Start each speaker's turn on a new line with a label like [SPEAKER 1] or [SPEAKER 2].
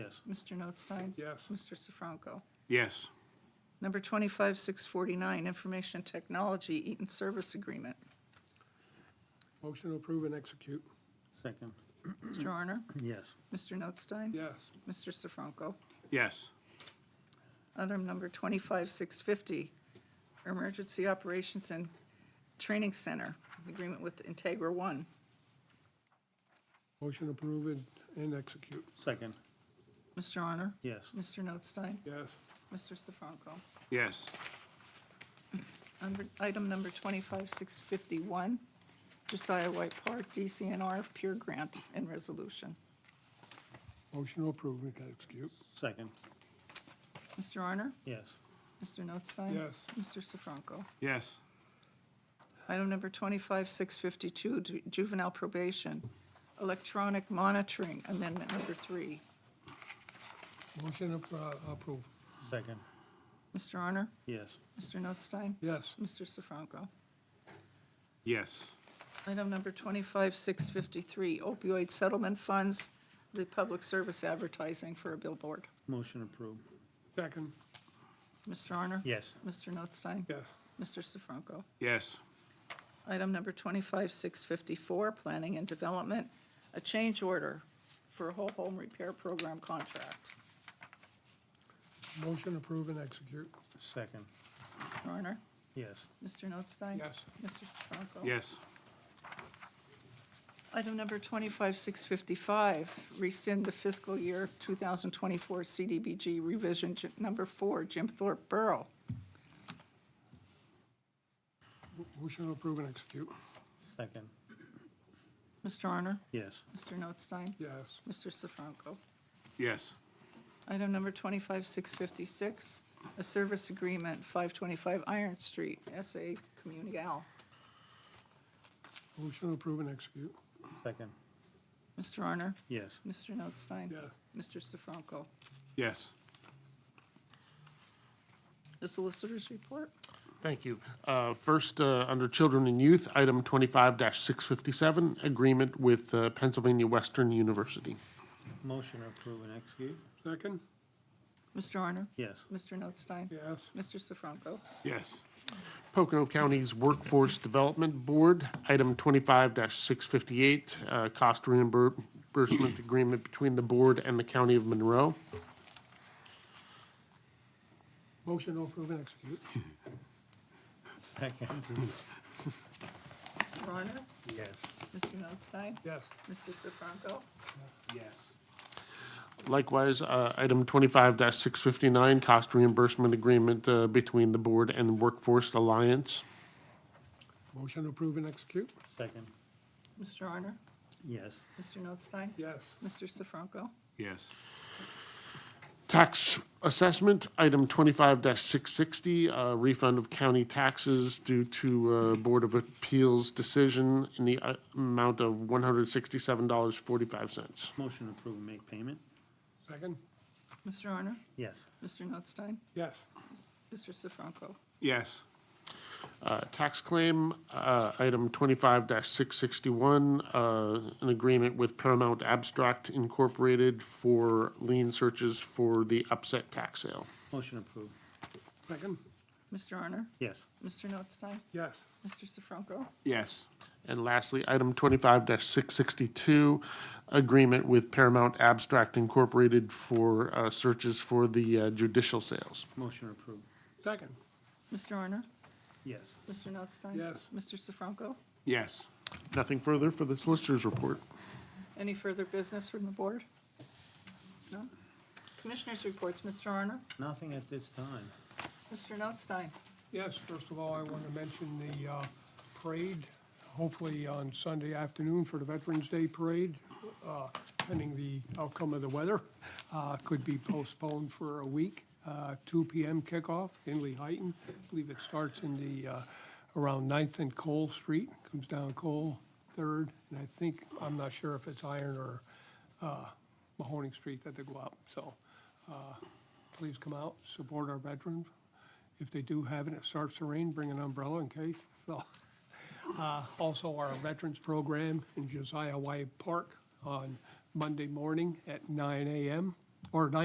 [SPEAKER 1] Yes.
[SPEAKER 2] Mr. Notstein?
[SPEAKER 1] Yes.
[SPEAKER 2] Mr. Sifranco?
[SPEAKER 3] Yes.
[SPEAKER 2] Number 25649, Information Technology Eaton Service Agreement.
[SPEAKER 1] Motion to approve and execute.
[SPEAKER 3] Second.
[SPEAKER 2] Mr. Arner?
[SPEAKER 3] Yes.
[SPEAKER 2] Mr. Notstein?
[SPEAKER 1] Yes.
[SPEAKER 2] Mr. Sifranco?
[SPEAKER 3] Yes.
[SPEAKER 2] Item number 25650, Emergency Operations and Training Center, Agreement with Integra One.
[SPEAKER 1] Motion to approve and, and execute.
[SPEAKER 3] Second.
[SPEAKER 2] Mr. Honor?
[SPEAKER 3] Yes.
[SPEAKER 2] Mr. Notstein?
[SPEAKER 1] Yes.
[SPEAKER 2] Mr. Sifranco?
[SPEAKER 3] Yes.
[SPEAKER 2] Under item number 25651, Josiah White Park, DCNR, Pure Grant and Resolution.
[SPEAKER 1] Motion to approve and execute.
[SPEAKER 3] Second.
[SPEAKER 2] Mr. Honor?
[SPEAKER 3] Yes.
[SPEAKER 2] Mr. Notstein?
[SPEAKER 1] Yes.
[SPEAKER 2] Mr. Sifranco?
[SPEAKER 3] Yes.
[SPEAKER 2] Item number 25652, ju- Juvenile Probation, Electronic Monitoring Amendment Number Three.
[SPEAKER 1] Motion to uh, approve.
[SPEAKER 3] Second.
[SPEAKER 2] Mr. Honor?
[SPEAKER 3] Yes.
[SPEAKER 2] Mr. Notstein?
[SPEAKER 1] Yes.
[SPEAKER 2] Mr. Sifranco?
[SPEAKER 3] Yes.
[SPEAKER 2] Item number 25653, opioid settlement funds, the public service advertising for a billboard.
[SPEAKER 3] Motion approved.
[SPEAKER 1] Second.
[SPEAKER 2] Mr. Honor?
[SPEAKER 3] Yes.
[SPEAKER 2] Mr. Notstein?
[SPEAKER 1] Yes.
[SPEAKER 2] Mr. Sifranco?
[SPEAKER 3] Yes.
[SPEAKER 2] Item number 25654, planning and development, a change order for a whole home repair program contract.
[SPEAKER 1] Motion to approve and execute.
[SPEAKER 3] Second.
[SPEAKER 2] Mr. Honor?
[SPEAKER 3] Yes.
[SPEAKER 2] Mr. Notstein?
[SPEAKER 1] Yes.
[SPEAKER 2] Mr. Sifranco?
[SPEAKER 3] Yes.
[SPEAKER 2] Item number 25655, rescind the fiscal year 2024 CDBG revision j- number four, Jim Thorpe Borough.
[SPEAKER 1] Motion to approve and execute.
[SPEAKER 3] Second.
[SPEAKER 2] Mr. Honor?
[SPEAKER 3] Yes.
[SPEAKER 2] Mr. Notstein?
[SPEAKER 1] Yes.
[SPEAKER 2] Mr. Sifranco?
[SPEAKER 3] Yes.
[SPEAKER 2] Item number 25656, a service agreement, 525 Iron Street, SA Communal.
[SPEAKER 1] Motion to approve and execute.
[SPEAKER 3] Second.
[SPEAKER 2] Mr. Honor?
[SPEAKER 3] Yes.
[SPEAKER 2] Mr. Notstein?
[SPEAKER 1] Yes.
[SPEAKER 2] Mr. Sifranco?
[SPEAKER 3] Yes.
[SPEAKER 2] The solicitors report?
[SPEAKER 4] Thank you. Uh, First, uh, under Children and Youth, item 25-657, agreement with uh, Pennsylvania Western University.
[SPEAKER 3] Motion approved and execute.
[SPEAKER 1] Second.
[SPEAKER 2] Mr. Honor?
[SPEAKER 3] Yes.
[SPEAKER 2] Mr. Notstein?
[SPEAKER 1] Yes.
[SPEAKER 2] Mr. Sifranco?
[SPEAKER 3] Yes.
[SPEAKER 4] Pocono County's Workforce Development Board, item 25-658, uh, cost reimbursement agreement between the board and the County of Monroe.
[SPEAKER 1] Motion to approve and execute.
[SPEAKER 3] Second.
[SPEAKER 2] Mr. Honor?
[SPEAKER 3] Yes.
[SPEAKER 2] Mr. Notstein?
[SPEAKER 1] Yes.
[SPEAKER 2] Mr. Sifranco?
[SPEAKER 3] Yes.
[SPEAKER 4] Likewise, uh, item 25-659, cost reimbursement agreement uh, between the board and Workforce Alliance.
[SPEAKER 1] Motion to approve and execute.
[SPEAKER 3] Second.
[SPEAKER 2] Mr. Honor?
[SPEAKER 3] Yes.
[SPEAKER 2] Mr. Notstein?
[SPEAKER 1] Yes.
[SPEAKER 2] Mr. Sifranco?
[SPEAKER 3] Yes.
[SPEAKER 4] Tax assessment, item twenty-five six sixty, uh, refund of county taxes due to uh, Board of Appeals decision in the uh, amount of one hundred sixty-seven dollars forty-five cents.
[SPEAKER 3] Motion approved and make payment.
[SPEAKER 1] Second.
[SPEAKER 2] Mr. Honor?
[SPEAKER 3] Yes.
[SPEAKER 2] Mr. Notstein?
[SPEAKER 1] Yes.
[SPEAKER 2] Mr. Sifranco?
[SPEAKER 3] Yes.
[SPEAKER 4] Uh, Tax claim, uh, item twenty-five six sixty-one, uh, an agreement with Paramount Abstract Incorporated for lien searches for the upset tax sale.
[SPEAKER 3] Motion approved.
[SPEAKER 1] Second.
[SPEAKER 2] Mr. Honor?
[SPEAKER 3] Yes.
[SPEAKER 2] Mr. Notstein?
[SPEAKER 1] Yes.
[SPEAKER 2] Mr. Sifranco?
[SPEAKER 3] Yes.
[SPEAKER 4] And lastly, item twenty-five six sixty-two, agreement with Paramount Abstract Incorporated for uh, searches for the uh, judicial sales.
[SPEAKER 3] Motion approved.
[SPEAKER 1] Second.
[SPEAKER 2] Mr. Honor?
[SPEAKER 3] Yes.
[SPEAKER 2] Mr. Notstein?
[SPEAKER 1] Yes.
[SPEAKER 2] Mr. Sifranco?
[SPEAKER 3] Yes.
[SPEAKER 4] Nothing further for the solicitor's report.
[SPEAKER 2] Any further business from the board? No? Commissioners' reports, Mr. Honor?
[SPEAKER 3] Nothing at this time.
[SPEAKER 2] Mr. Notstein?
[SPEAKER 1] Yes, first of all, I want to mention the uh, parade, hopefully on Sunday afternoon for the Veterans Day Parade, uh, pending the outcome of the weather, uh, could be postponed for a week. Uh, 2 PM kickoff in Lee Heighton. I believe it starts in the, uh, around Ninth and Cole Street, comes down Cole, Third, and I think, I'm not sure if it's Iron or uh, Mahoning Street that they go up. So uh, please come out, support our veterans. If they do have it, it starts to rain, bring an umbrella in case, so. Uh, Also, our veterans program in Josiah White Park on Monday morning at nine AM or nine.